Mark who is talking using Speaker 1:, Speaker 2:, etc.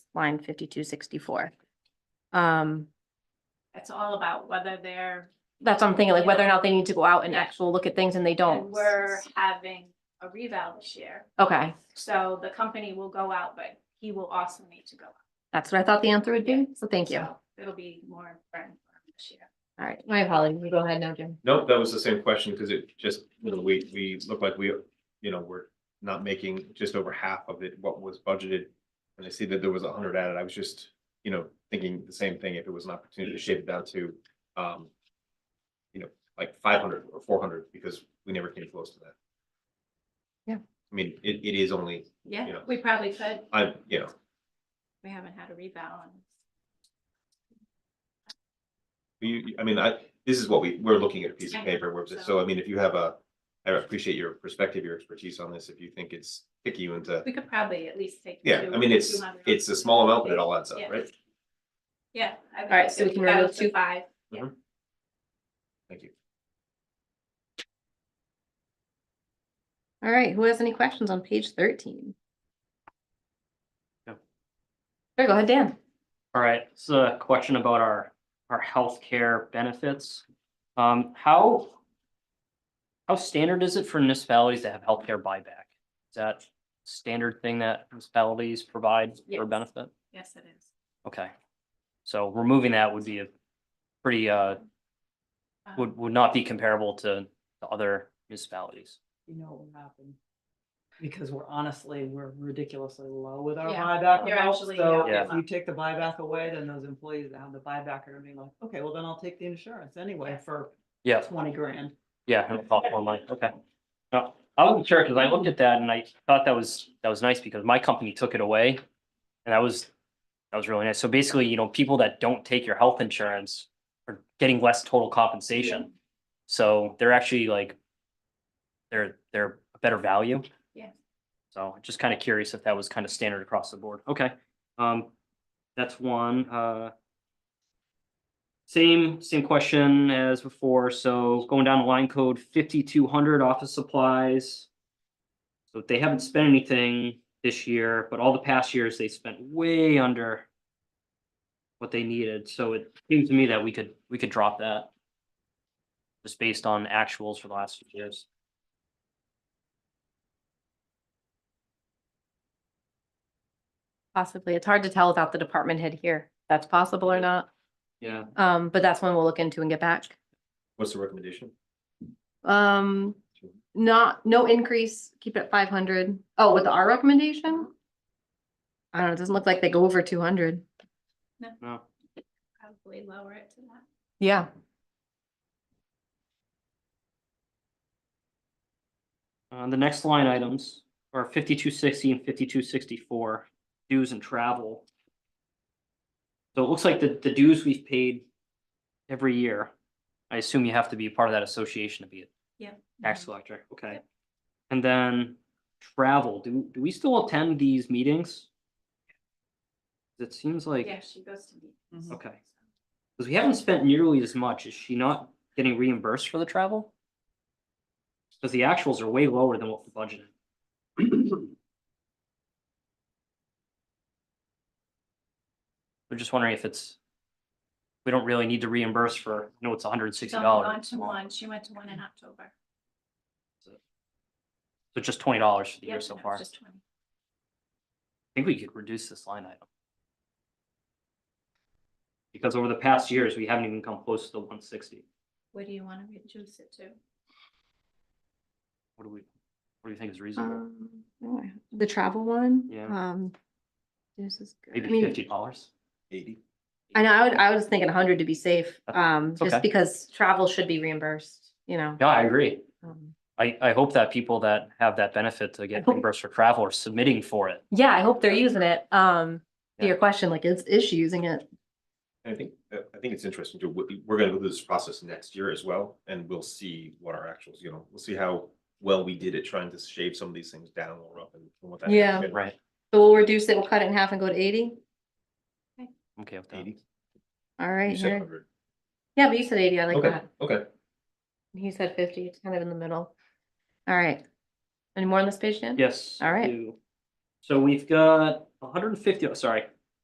Speaker 1: line fifty-two sixty-four. Um,
Speaker 2: It's all about whether they're,
Speaker 1: that's what I'm thinking, like whether or not they need to go out and actual look at things and they
Speaker 2: and
Speaker 1: don't.
Speaker 2: we're having a reval this year.
Speaker 1: Okay,
Speaker 2: So the company will go out, but he will also need to go. out.
Speaker 1: that's what I thought the answer would be, so thank you. All
Speaker 2: So It'll be more important for him this year.
Speaker 1: right, my apologies, you go ahead now, Jim.
Speaker 3: Nope, that was the same question, because it just, you know, we, we look like we, you know, we're not making just over half of it, what was budgeted. And I see that there was a hundred added, I was just, you know, thinking the same thing, if it was an opportunity to shave it down to, um. You know, like five hundred or four hundred, because we never came close to that.
Speaker 1: Yeah.
Speaker 3: I mean, it, it is only,
Speaker 2: Yeah,
Speaker 3: Yeah.
Speaker 2: we probably could.
Speaker 3: I, you know,
Speaker 2: We haven't had a reval and
Speaker 3: You, you- I mean, I, this is what we, we're looking at a piece of
Speaker 2: I know,
Speaker 3: paper, we're, just-
Speaker 2: so-
Speaker 3: so I mean, if you have a, I appreciate your perspective, your expertise on this, if you think it's picky you into.
Speaker 2: we could probably at least take.
Speaker 3: Yeah,
Speaker 2: two-
Speaker 3: I mean, it's,
Speaker 2: 200.
Speaker 3: it's a small amount, but it all adds up,
Speaker 2: Yeah.
Speaker 3: right?
Speaker 2: Yeah. All
Speaker 1: right, so we can remove two-
Speaker 2: Five.
Speaker 3: Thank you.
Speaker 1: All right, who has any questions on page thirteen?
Speaker 4: No.
Speaker 1: There, go ahead, Dan.
Speaker 4: All right, this is a question about our, our healthcare benefits. Um, how? How standard is it for municipalities to have healthcare buyback? Is that standard thing that municipalities provide for
Speaker 2: Yes.
Speaker 4: benefit?
Speaker 2: Yes, it is.
Speaker 4: Okay. So removing that would be a pretty, uh,
Speaker 2: Um,
Speaker 4: would, would not be comparable to, to other municipalities.
Speaker 5: you know what will happen. Because we're honestly, we're ridiculously low with our
Speaker 2: Yeah,
Speaker 5: buyback
Speaker 2: you're
Speaker 5: amount,
Speaker 2: actually,
Speaker 5: so
Speaker 4: yeah.
Speaker 5: if you take the buyback away, then those employees that have the buyback are gonna be like, okay, well then I'll take the insurance anyway for
Speaker 4: Yeah,
Speaker 5: twenty grand.
Speaker 4: yeah, and it's all online, okay. No, I wasn't sure, because I looked at that and I thought that was, that was nice because my company took it away. And that was, that was really nice. So basically, you know, people that don't take your health insurance are getting less total compensation. So they're actually like, they're, they're a better value.
Speaker 2: Yeah.
Speaker 4: So just kind of curious if that was kind of standard across the board. Okay. Um, that's one, uh. Same, same question as before. So going down to line code fifty-two hundred office supplies. So they haven't spent anything this year, but all the past years they spent way under what they needed. So it seems to me that we could, we could drop that. Just based on actuals for the last few years.
Speaker 1: Possibly, it's hard to tell without the department head here, if that's possible or not,
Speaker 4: Yeah.
Speaker 1: um, but that's one we'll look into and get back.
Speaker 3: What's the recommendation?
Speaker 1: Um, not, no increase, keep it at five hundred. Oh, with our recommendation? I don't know, it doesn't look like they go over two hundred.
Speaker 4: No,
Speaker 2: Probably lower it to that.
Speaker 1: Yeah.
Speaker 4: uh, the next line items are fifty-two sixty and fifty-two sixty-four dues and travel. So it looks like the, the dues we've paid every year. I assume you have to be a part of that association to be a Tax
Speaker 2: Mm-hmm.
Speaker 4: collector, okay.
Speaker 2: Yep.
Speaker 4: And then travel, do, do we still attend these meetings? It seems like,
Speaker 2: Yeah, she goes to
Speaker 1: Mm-hmm.
Speaker 2: meetings.
Speaker 4: Okay. because we haven't spent nearly as much, is she not getting reimbursed for the travel? Because the actuals are way lower than what we budgeted. We're just wondering if it's, we don't really need to reimburse for, no, it's hundred and sixty
Speaker 2: So we went
Speaker 4: dollars.
Speaker 2: to one, she went to one in October.
Speaker 4: So just twenty dollars for the year
Speaker 2: Yep,
Speaker 4: so
Speaker 2: no,
Speaker 4: far.
Speaker 2: Just twenty.
Speaker 4: I think we could reduce this line item. Because over the past years, we haven't even come close to the one sixty.
Speaker 2: What do you want to reduce it to?
Speaker 4: What do we, what do you think is reasonable?
Speaker 1: Um, oh, The travel one?
Speaker 4: Yeah.
Speaker 1: Um. This is good. I
Speaker 4: Maybe
Speaker 1: mean,
Speaker 4: fifty dollars?
Speaker 3: Eighty.
Speaker 1: I know, I would, I was thinking hundred to be safe,
Speaker 4: Uh,
Speaker 1: um,
Speaker 4: okay.
Speaker 1: just because travel should be reimbursed, you know?
Speaker 4: Yeah, I agree.
Speaker 1: Um,
Speaker 4: I, I hope that people that have that benefit to
Speaker 1: I
Speaker 4: get
Speaker 1: hope-
Speaker 4: reimbursed for travel are submitting for it.
Speaker 1: Yeah, I hope they're using it. Um, to
Speaker 4: Yeah.
Speaker 1: your question, like, is, is she using it?
Speaker 3: And I think, uh, I think it's interesting too, we- we're gonna go through this process next year as well, and we'll see what our actuals, you know, we'll see how well we did at trying to shave some of these things down or up and what that.
Speaker 1: Yeah.
Speaker 4: Right.
Speaker 1: So we'll reduce it, we'll cut it in half and go to eighty?
Speaker 4: I'm Okay, with that.
Speaker 3: Eighty,
Speaker 1: All
Speaker 3: you
Speaker 1: right,
Speaker 3: said
Speaker 1: here.
Speaker 3: 100.
Speaker 1: Yeah, but you said eighty, I like
Speaker 3: Okay,
Speaker 1: that.
Speaker 3: okay.
Speaker 1: He said fifty, it's kind of in the middle. All right. Any more on this page, Dan?
Speaker 4: Yes.
Speaker 1: All right.
Speaker 4: you- So we've got 150. hundred and fifty, oh, sorry,